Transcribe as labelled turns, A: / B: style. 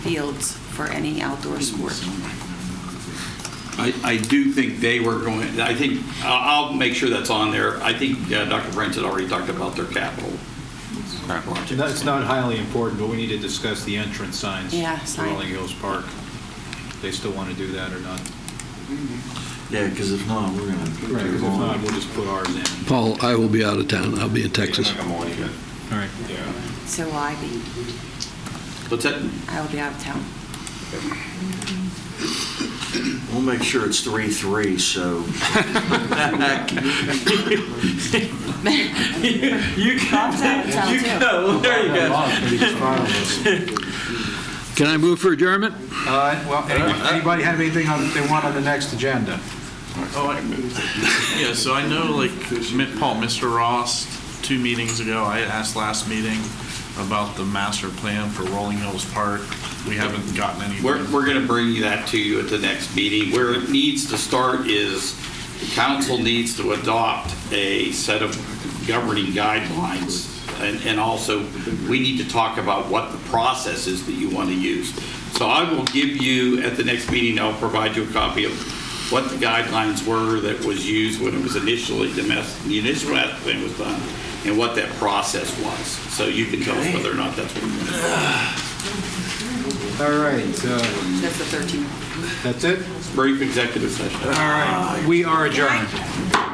A: fields for any outdoor sport.
B: I, I do think they were going, I think, I'll, I'll make sure that's on there. I think uh, Dr. Brent had already talked about their capital project.
C: That's not highly important, but we need to discuss the entrance signs
A: Yeah,
C: for
A: sign.
C: Rolling Hills Park. They still want to do that or not?
D: Yeah, because if not, we're going to.
C: Because if not, we'll just put ours in.
E: Paul, I will be out of town. I'll be in Texas.
C: All right.
A: So will I be,
B: What's that?
A: I will be out of town.
D: We'll make sure it's three, three, so.
B: You
A: Bob's out of town, too.
B: go, there you go.
E: Can I move for adjournment?
C: Uh, Well, any- anybody have anything on- they want on the next agenda?
F: Oh, Yeah, so I know, like, Mi- Paul, Mr. Ross, two meetings ago, I asked last meeting about the master plan for Rolling Hills Park. We haven't gotten any.
B: We're, we're going to bring that to you at the next meeting. Where it needs to start is the council needs to adopt a set of governing guidelines. And, and also, we need to talk about what the process is that you want to use. So I will give you, at the next meeting, I'll provide you a copy of what the guidelines were that was used when it was initially, the mas- the initial master plan was done, and what that process was. So you can tell us whether or not that's what you want to do.
C: All right, uh,
A: That's the 13th.
C: that's it?
B: Brief executive session.
C: All right, we are adjourned.